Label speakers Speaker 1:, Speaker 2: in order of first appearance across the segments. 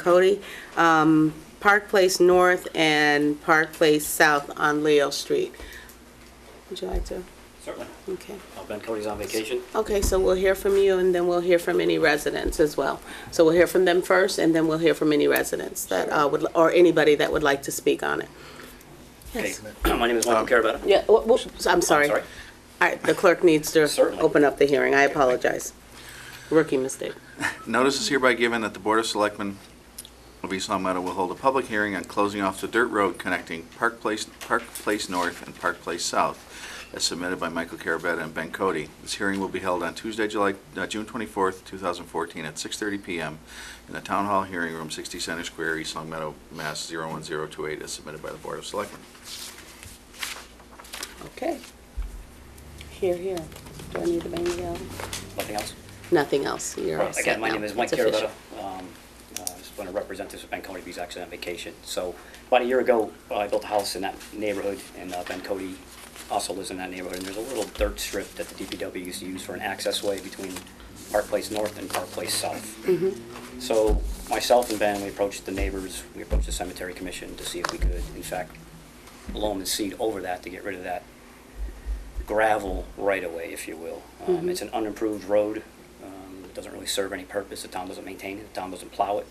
Speaker 1: Cody, um, Park Place North and Park Place South on Leo Street. Would you like to?
Speaker 2: Certainly.
Speaker 1: Okay.
Speaker 2: Uh, Ben Cody's on vacation.
Speaker 1: Okay, so we'll hear from you, and then we'll hear from any residents as well. So we'll hear from them first, and then we'll hear from any residents that uh, would, or anybody that would like to speak on it.
Speaker 2: Hey,
Speaker 1: Yes.
Speaker 2: my name is Michael Carabetta.
Speaker 1: Yeah, wh- wh- I'm Um, sorry.
Speaker 2: Sorry.
Speaker 1: All right, the clerk needs to
Speaker 2: Certainly.
Speaker 1: open up the hearing. I apologize. Rookie mistake.
Speaker 3: Notice is hereby given that the Board of Selectmen of East Long Meadow will hold a public hearing on closing off the dirt road connecting Park Place, Park Place North and Park Place South, as submitted by Michael Carabetta and Ben Cody. This hearing will be held on Tuesday, July, uh, June 24th, 2014, at 6:30 PM in the Town Hall Hearing Room, 60 Center Square, East Long Meadow, Mass. 01028, as submitted by the Board of Selectmen.
Speaker 1: Okay. Here, here. Do I need to bang it out?
Speaker 2: Nothing else?
Speaker 1: Nothing else. You're all
Speaker 2: Well,
Speaker 1: set
Speaker 2: Again, my
Speaker 1: now.
Speaker 2: name is Mike
Speaker 1: It's official.
Speaker 2: Carabetta. Um, uh, I just want to represent this with Ben Cody, he's actually on vacation. So about a year ago, uh, I built a house in that neighborhood, and uh, Ben Cody also lives in that neighborhood. And there's a little dirt strip that the DPW used to use for an access way between Park Place North and Park Place South. So myself and Ben, we approached the neighbors, we approached the cemetery commission to see if we could, in fact, loam and seed over that to get rid of that gravel right-of-way, if you will. Um, It's an unimproved road, um, it doesn't really serve any purpose, the town doesn't maintain it, the town doesn't plow it.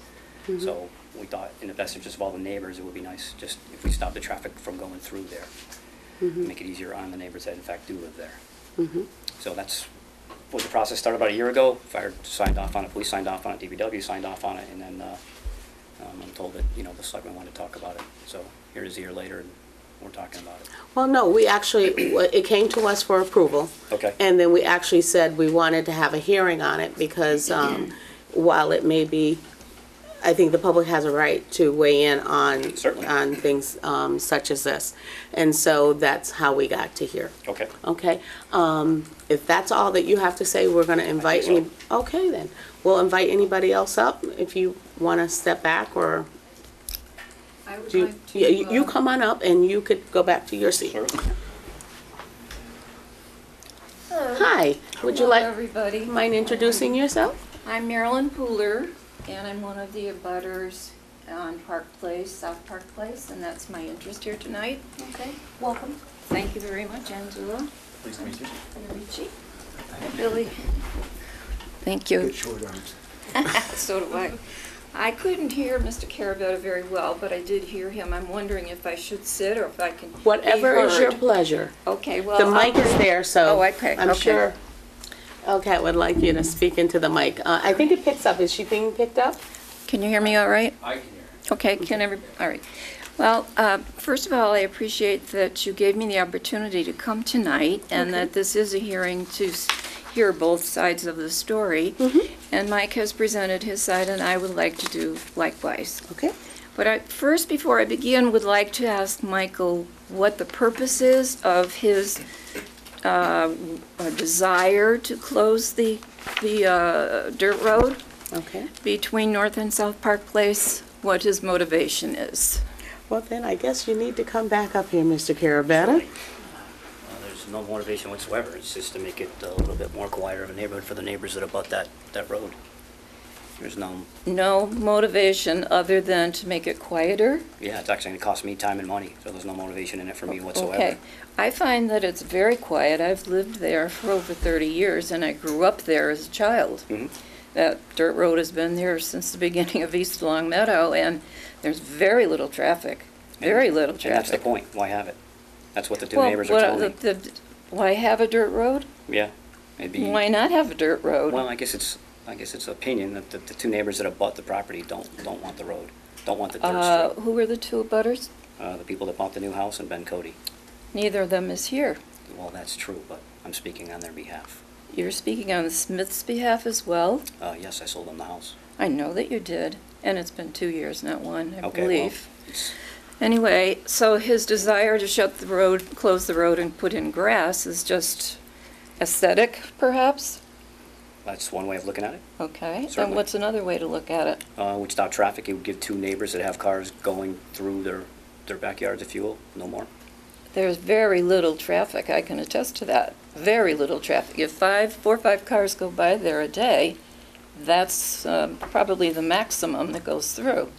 Speaker 2: So we thought, in the best interest of all the neighbors, it would be nice just if we stopped the traffic from going through there. Make it easier on the neighbors that in fact do live there. So that's what the process started about a year ago. Fire signed off on it, police signed off on it, DPW signed off on it, and then uh, um, I'm told that, you know, the selectmen wanted to talk about it. So here is a year later, and we're talking about it.
Speaker 1: Well, no, we actually, it came to us for approval.
Speaker 2: Okay.
Speaker 1: And then we actually said we wanted to have a hearing on it because um, while it may be, I think the public has a right to weigh in on.
Speaker 2: Certainly.
Speaker 1: On things um, such as this. And so that's how we got to here.
Speaker 2: Okay.
Speaker 1: Okay, um, if that's all that you have to say, we're gonna invite
Speaker 2: so.
Speaker 1: any, okay then. We'll invite anybody else up if you wanna step back or
Speaker 4: I would
Speaker 1: do, you-
Speaker 4: like to.
Speaker 1: yeah, you you
Speaker 4: uh,
Speaker 1: come on up and you could go back to your seat.
Speaker 2: Sure.
Speaker 4: Hello,
Speaker 1: Hi, would you
Speaker 4: Hello,
Speaker 1: like,
Speaker 4: everybody.
Speaker 1: mind introducing yourself?
Speaker 4: I'm Marilyn Pooler, and I'm one of the abutters on Park Place, South Park Place, and that's my interest here tonight. Okay, welcome. Thank you very much, Angela.
Speaker 3: Pleased to meet you.
Speaker 4: and Richie. Billy. Thank you. So do I. I couldn't hear Mr. Carabetta very well, but I did hear him. I'm wondering if I should sit or if I can be
Speaker 1: Whatever is your
Speaker 4: heard.
Speaker 1: pleasure.
Speaker 4: Okay, well.
Speaker 1: The
Speaker 4: I'll-
Speaker 1: mic is there, so.
Speaker 4: Oh, okay,
Speaker 1: I'm
Speaker 4: okay.
Speaker 1: sure. Okay, would like you to speak into the mic. Uh, I think it picks up. Is she being picked up?
Speaker 4: Can you hear me all right?
Speaker 2: I can hear.
Speaker 4: Okay, can every, all right. Well, uh, first of all, I appreciate that you gave me the opportunity to come tonight and that this is a hearing to s- hear both sides of the story. And Mike has presented his side, and I would like to do likewise.
Speaker 1: Okay.
Speaker 4: But I, first, before I begin, would like to ask Michael what the purpose is of his uh, w- uh, desire to close the, the uh, dirt road
Speaker 1: Okay.
Speaker 4: between North and South Park Place, what his motivation is.
Speaker 1: Well, then I guess you need to come back up here, Mr. Carabetta.
Speaker 2: Uh, There's no motivation whatsoever, it's just to make it a little bit more quieter of a neighborhood for the neighbors that abut that, that road. There's no,
Speaker 4: No motivation other than to make it quieter?
Speaker 2: yeah, it's actually gonna cost me time and money, so there's no motivation in it for me
Speaker 4: Okay.
Speaker 2: whatsoever.
Speaker 4: I find that it's very quiet. I've lived there for over 30 years, and I grew up there as a child.
Speaker 2: Mhm.
Speaker 4: That dirt road has been there since the beginning of East Long Meadow, and there's very little traffic, very little
Speaker 2: And that's the
Speaker 4: traffic.
Speaker 2: point, why have it? That's what the two
Speaker 4: Well,
Speaker 2: neighbors
Speaker 4: what
Speaker 2: are telling me.
Speaker 4: the- the- Why have a dirt road?
Speaker 2: Yeah, it'd be.
Speaker 4: Why not have a dirt road?
Speaker 2: Well, I guess it's, I guess it's opinion that the, the two neighbors that abut the property don't, don't want the road, don't want the
Speaker 4: Uh,
Speaker 2: dirt street.
Speaker 4: Who were the two butters?
Speaker 2: Uh, the people that bought the new house and Ben Cody.
Speaker 4: Neither of them is here.
Speaker 2: Well, that's true, but I'm speaking on their behalf.
Speaker 4: You're speaking on the Smiths' behalf as well.
Speaker 2: Uh, yes, I sold them the house.
Speaker 4: I know that you did, and it's been two years, not one, I
Speaker 2: Okay, well,
Speaker 4: believe.
Speaker 2: it's-
Speaker 4: Anyway, so his desire to shut the road, close the road and put in grass is just aesthetic, perhaps?
Speaker 2: That's one way of looking at it.
Speaker 4: Okay, and
Speaker 2: Certainly.
Speaker 4: what's another way to look at it?
Speaker 2: Uh, would stop traffic, it would give two neighbors that have cars going through their, their backyards, if you will, no more.
Speaker 4: There's very little traffic, I can attest to that, very little traffic. If five, four or five cars go by there a day, that's um, probably the maximum that goes through.